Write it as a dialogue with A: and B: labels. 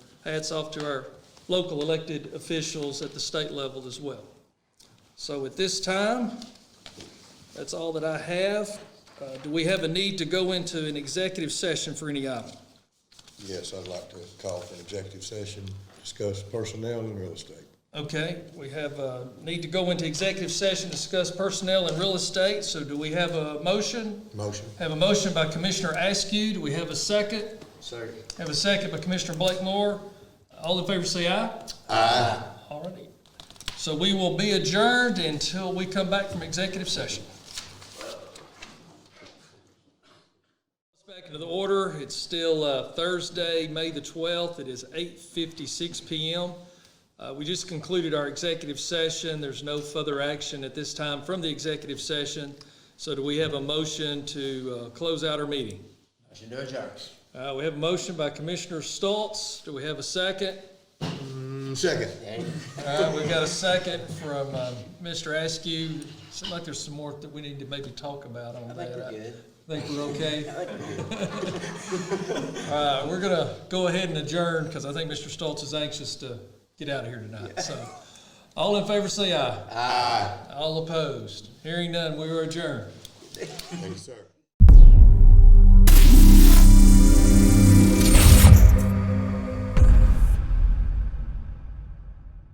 A: hats off to our local elected officials at the state level as well. So at this time, that's all that I have. Uh, Do we have a need to go into an executive session for any item?
B: Yes, I'd like to call for an executive session, discuss personnel and real estate.
A: Okay, we have a need to go into executive session, discuss personnel and real estate. So do we have a motion?
B: Motion.
A: Have a motion by Commissioner Askew. Do we have a second?
B: Second.
A: Have a second by Commissioner Blakemore. All in favor say aye. Aye. All righty. So we will be adjourned until we come back from executive session. Back into the order. It's still uh, Thursday, May the 12th. It is 8:56 PM. Uh, We just concluded our executive session. There's no further action at this time from the executive session. So do we have a motion to uh, close out our meeting?
C: Motion to adjourn.
A: Uh, we have a motion by Commissioner Stoltz. Do we have a second?
B: Second.
A: All right, Uh, we've got a second from, uh, Mr. Askew. Seems like there's some more that we need to maybe talk about on that.
C: think we're good.
A: Think we're okay? All right, we're gonna go ahead and adjourn, because I think Mr. Stoltz is anxious to get out of here tonight, so. All in favor, say aye. Aye. All opposed. Hearing none, we are adjourned.
B: Thank you, sir.